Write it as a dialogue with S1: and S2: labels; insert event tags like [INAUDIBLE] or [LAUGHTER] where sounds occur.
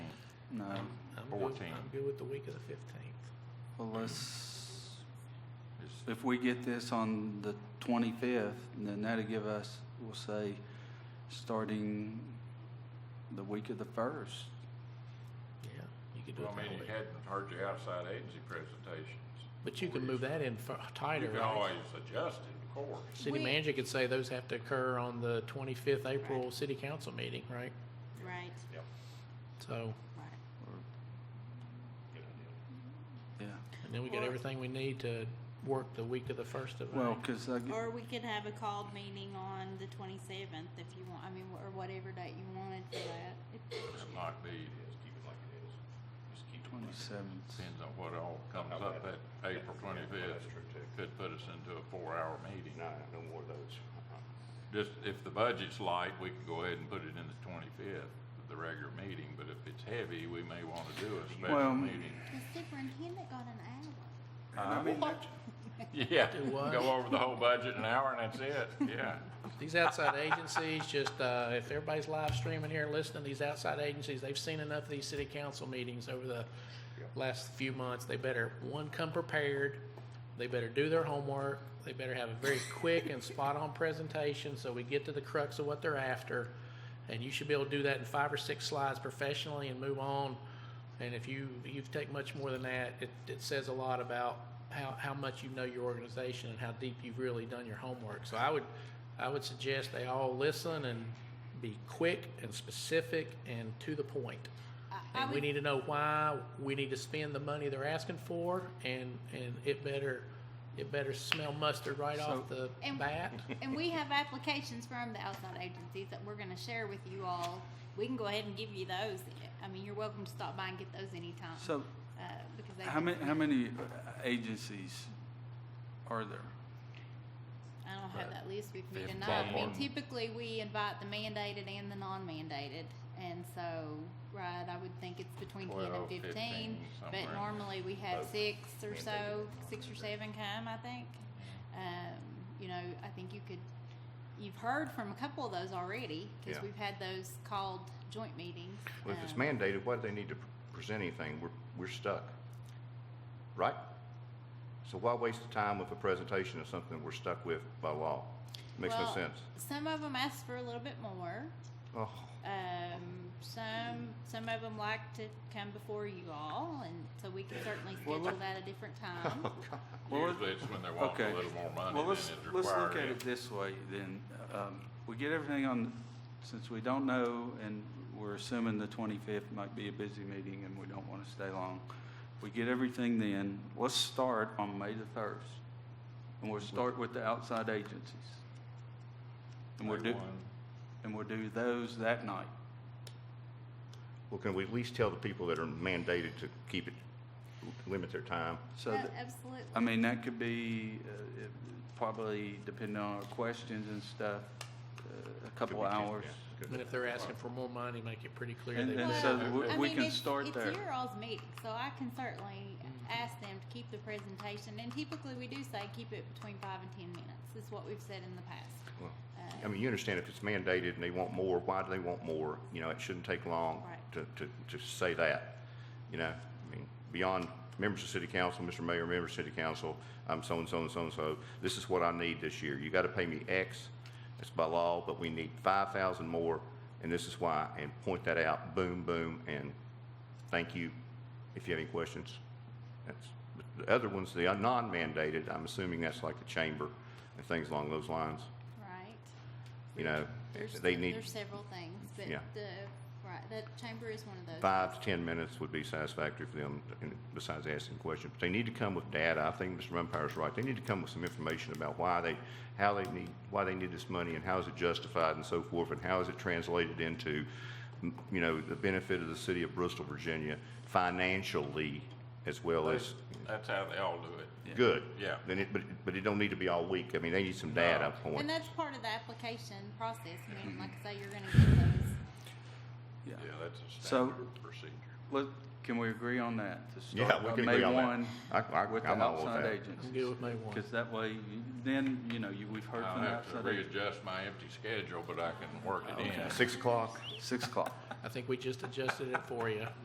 S1: No.
S2: I'm good,
S3: 14.
S2: I'm good with the week of the fifteenth.
S1: Well, let's,
S3: Is-
S1: if we get this on the 25th, then that'll give us, we'll say, starting the week of the 1st.
S2: Yeah, you could do it
S3: Well, I mean,
S2: that
S3: you
S2: way.
S3: hadn't heard your outside agency presentations.
S2: But you can move that in fi-
S3: You
S2: tighter,
S3: can
S2: right?
S3: always adjust it, of course.
S2: City
S4: We-
S2: manager could say those have to occur on the twenty-fifth April city council meeting, right?
S4: Right,
S3: Yep.
S2: So,
S4: right.
S1: Yeah.
S2: and then we got
S4: Or-
S2: everything we need to work the week of the first of
S1: Well,
S2: May.
S1: because I get,
S4: Or we could have a called meeting on the twenty-seventh if you want, I mean, or whatever date you wanted for that. If-
S3: It might be, keep it like it is. Just keep
S1: 27th.
S3: Depends on what all comes up that April twenty-fifth. Could put us into a four-hour meeting.
S5: No, no more of those.
S3: Just, if the budget's light, we can go ahead and put it in the twenty-fifth, the regular meeting, but if it's heavy, we may want to do a
S1: Well- mm.
S3: special
S1: [LAUGHS]
S3: meeting.
S4: The superintendent got an hour.
S3: Yeah,
S2: Do what?
S3: go over the whole budget in an hour and
S1: [LAUGHS]
S3: that's it, yeah.
S2: These outside agencies, just, uh, if everybody's live streaming here and listening, these outside agencies, they've seen enough of these city council meetings over the last few months. They better, one, come prepared. They better do their homework. They better have a very quick and spot-on presentation so we get to the crux of what they're after. And you should be able to do that in five or six slides professionally and move on. And if you, you take much more than that, it, it says a lot about how, how much you know your organization and how deep you've really done your homework. So I would, I would suggest they all listen and be quick and specific and to the point.
S4: I- I
S2: And we
S4: would-
S2: need to know why we need to spend the money they're asking for and, and it better, it better smell mustard right off the
S4: And-
S1: [LAUGHS]
S2: bat.
S4: And we have applications from the outside agencies that we're gonna share with you all. We can go ahead and give you those. I mean, you're welcome to stop by and get those anytime.
S1: so
S4: uh, because they.
S1: how many, how many agencies are there?
S4: I don't have that list with me
S3: Fifteen.
S4: tonight. I mean,
S3: Someone-
S4: typically, we invite the mandated and the non-mandated, and so, right, I would think it's between ten and
S3: Twelve,
S4: fifteen.
S3: fifteen, somewhere in
S4: But
S3: there.
S4: normally, we have six or so, six or seven come, I think. Um, you know, I think you could, you've heard from a couple of those already, because
S5: Yeah.
S4: we've had those called joint meetings.
S5: Well, if it's
S4: Um,
S5: mandated, why do they need to pr- present anything? We're, we're stuck, right? So why waste the time with a presentation of something we're stuck with by law? Makes no
S4: well,
S5: sense.
S4: Some of them ask for a little bit more.
S5: Oh,
S4: Um, some some of them like to come before you all, and so we can certainly schedule that
S1: [LAUGHS]
S4: a different time.
S5: oh, God.
S1: Well,
S3: Usually it's when they want
S1: Okay.
S3: a little more money
S1: Well,
S3: than
S1: let's,
S3: is required.
S1: let's look at it this way then. Um, we get everything on, since we don't know and we're assuming the 25th might be a busy meeting and we don't want to stay long. We get everything then. Let's start on May the 1st. And we'll start with the outside agencies. And we'll do, and we'll do those that night.
S5: Well, can we at least tell the people that are mandated to keep it, limit their time?
S1: So,
S4: Yeah, uh,
S1: th-
S4: absolutely.
S1: I mean, that could be, uh, it- probably depending on our questions and stuff, uh, a couple
S5: Could we-
S1: hours.
S5: yeah,
S2: And
S5: good.
S2: if they're asking for more money, make it pretty clear.
S1: And-
S2: they
S1: and
S2: want
S1: so
S2: it.
S1: we-
S4: I
S1: we
S4: mean,
S1: can
S4: it's-
S1: start
S4: it's
S1: there.
S4: your all's meeting, so I can certainly ask them to keep the presentation. And typically, we do say keep it between five and ten minutes. Is what we've said in the past.
S5: Well,
S4: Uh,
S5: I mean, you understand if it's mandated and they want more, why do they want more? You know, it shouldn't take long
S4: Right.
S5: to, to, to say that. You know, I mean, beyond members of city council, Mr. Mayor, members of city council, I'm so-and-so and so-and-so, this is what I need this year. You gotta pay me X, that's by law, but we need five thousand more, and this is why, and point that out, boom, boom, and thank you if you have any questions. That's, but the other ones, the non-mandated, I'm assuming that's like the chamber and things along those lines
S4: right.
S5: you know,
S4: There's
S5: they need
S4: there's several things, but
S5: Yeah.
S4: the right the chamber is one of those.
S5: five to 10 minutes would be satisfactory for them, and besides asking questions. But they need to come with data. I think Mr. Rumpire's right. They need to come with some information about why they, how they need, why they need this money, and how is it justified, and so forth, and how is it translated into, m- you know, the benefit of the city of Bristol, Virginia, financially, as well as,
S3: That's how they all do it.
S5: good.
S3: Yeah.
S5: Then it, but, but it don't need to be all week. I mean, they need some data
S4: And
S5: point.
S4: that's part of the application process. I mean, like I say, you're going
S1: [LAUGHS]
S4: to get those.
S1: Yeah.
S3: Yeah, that's a
S1: So-
S3: standard procedure.
S1: Let, can we agree on that? to
S5: Yeah,
S1: start
S5: we
S1: on
S5: can
S1: May
S5: agree on that.
S1: 1
S5: I, I,
S1: With the
S5: I'm all with
S1: outside
S5: that.
S2: I'm
S1: agencies?
S2: good with May one.
S1: Because that way, you- then, you know, you, we've heard
S3: I'll
S1: from the
S3: have to
S1: outside agents.
S3: readjust my empty schedule, but I can work it in.
S5: Six o'clock?
S1: Six o'clock.
S2: I think we just adjusted it for you.